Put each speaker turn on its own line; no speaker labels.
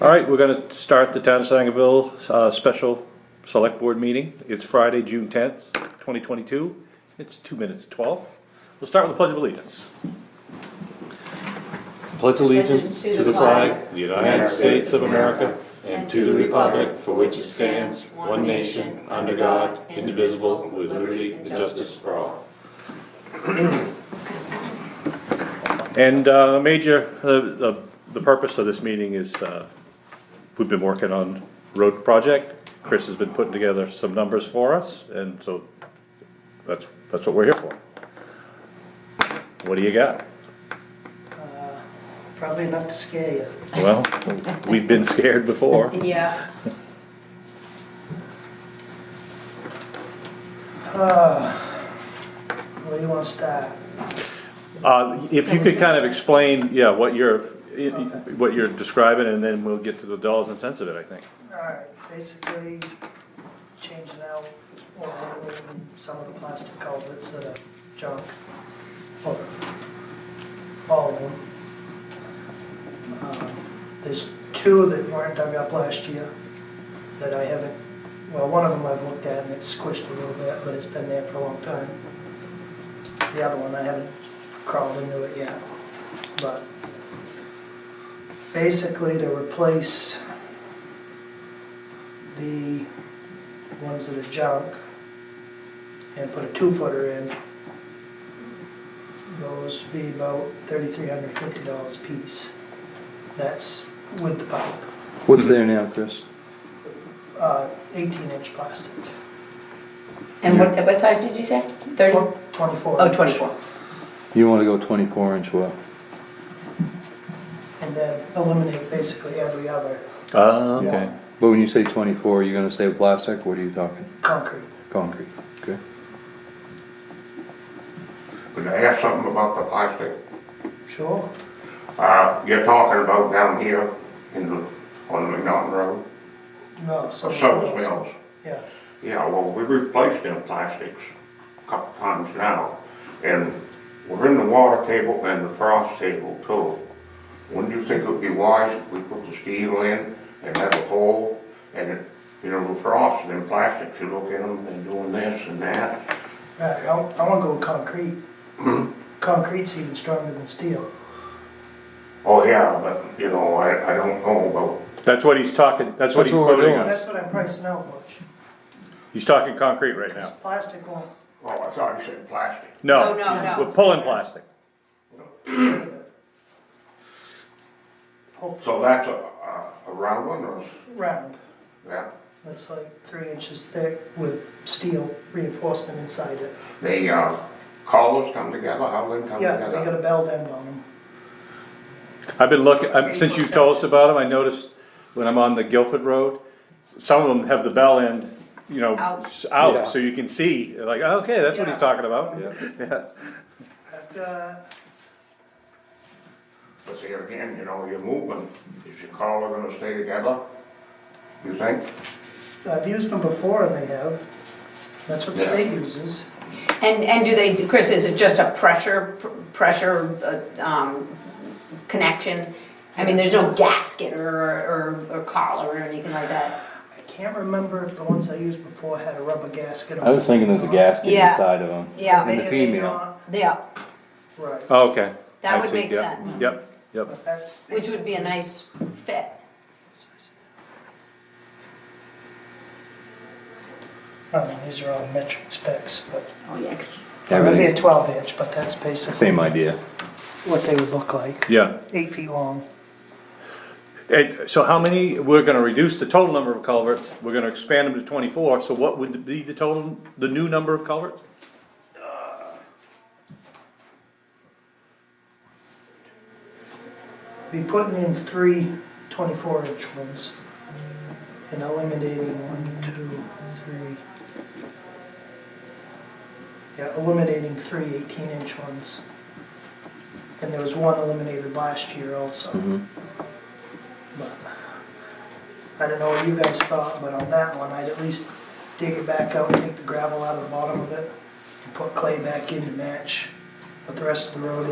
All right, we're gonna start the Town of Sangerville, uh, special select board meeting. It's Friday, June tenth, twenty twenty-two. It's two minutes to twelve. We'll start with the Pledge of Allegiance. Pledge allegiance to the flag of the United States of America
and to the republic for which it stands, one nation, under God, indivisible, with liberty and justice for all.
And uh, major, uh, the the purpose of this meeting is, uh, we've been working on road project. Chris has been putting together some numbers for us, and so that's, that's what we're here for. What do you got?
Probably enough to scare you.
Well, we've been scared before.
Yeah.
Ah. Where do you want to start?
Uh, If you could kind of explain, yeah, what you're, what you're describing, and then we'll get to the dollars and cents of it, I think.
Alright, basically changing out or removing some of the plastic culverts that are junk. Or all of them. Um, There's two that weren't dug up last year that I haven't, well, one of them I've looked at and it's squished a little bit, but it's been there for a long time. The other one, I haven't crawled into it yet, but basically to replace the ones that are junk and put a two footer in, those be about thirty-three hundred fifty dollars piece. That's with the pipe,
What's there now, Chris?
uh, eighteen inch plastic.
And what, what size did you say? Thirty?
Twen- Twenty-four.
Oh,
inch.
twenty-four.
You wanna go twenty-four inch well?
And then eliminate basically every other
Uh,
Ah, okay.
But when you say twenty-four, you're gonna say plastic, what are you talking?
concrete.
Concrete, okay?
Could I ask something about the plastic?
Sure,
Uh, you're talking about down here in the, on McNaughton Road,
no, so.
the service mills.
Yeah,
Yeah, well, we replaced them plastics a couple times now, and we're in the water table and the frost table too. Wouldn't you think it would be wise if we put the steel in and have a hole, and, it- you know, the frost and then plastics, you look at them, they're doing this and that.
right, I, I wanna go with concrete. Concrete's even stronger than steel.
Oh, yeah, but, you know, I, I don't know about
That's what he's talking, that's what
That's
he's
what we're
quoting
doing.
us.
That's what I'm pricing out much.
He's talking concrete right
Because
now.
plastic won't,
Oh, I thought you said plastic.
No,
No, no, no.
we're pulling plastic.
hold
So that's a, a- a round one or, a-
round.
yeah?
It's like three inches thick with steel reinforcement inside it.
They, uh, collars come together, how they come
Yeah, they got
together?
a belt end on them.
I've been looking, I- since you told us about them, I noticed when I'm on the Guilford Road, some of them have the bell end, you know,
Out.
s- out,
Yeah.
so you can see, like, "Oh, okay, that's what he's
Yeah.
talking about. Yeah.
I've uh, got,
But there again, you know, your movement, is your collar gonna stay together? You think?
I've used them before and they have. That's what
Yeah.
state uses.
And, and do they, Chris, is it just a pressure, pr- pressure, uh, um, connection? I mean, there's no gasket or, or, or collar or anything like that?
I can't remember if the ones I used before had a rubber gasket on.
I was
them.
thinking there's a gasket
Yeah.
inside of them.
Yeah.
And the
They- they
female.
not-
Yeah,
Right,
Oh, Okay.
That
I
would
see,
make
yep,
sense.
Yep, yep.
but that's.
which would be a nice fit.
I mean, these are all metric specs, but
Oh, yeah, 'cause-
it would be a
Everything's
twelve inch, but that's basically
Same idea.
what they would look like.
Yeah.
Eight feet long.
And so how many, we're gonna reduce the total number of culverts, we're gonna expand them to twenty-four, so what would be the total, the new number of culverts?
be putting in three 24 inch ones and eliminating one, two, three. Yeah, eliminating three 18 inch ones. And there was one eliminated last year also. But I don't know what you guys thought, but on that one, I'd at least dig it back out, take the gravel out of the bottom of it, and put clay back in to match what the rest of the road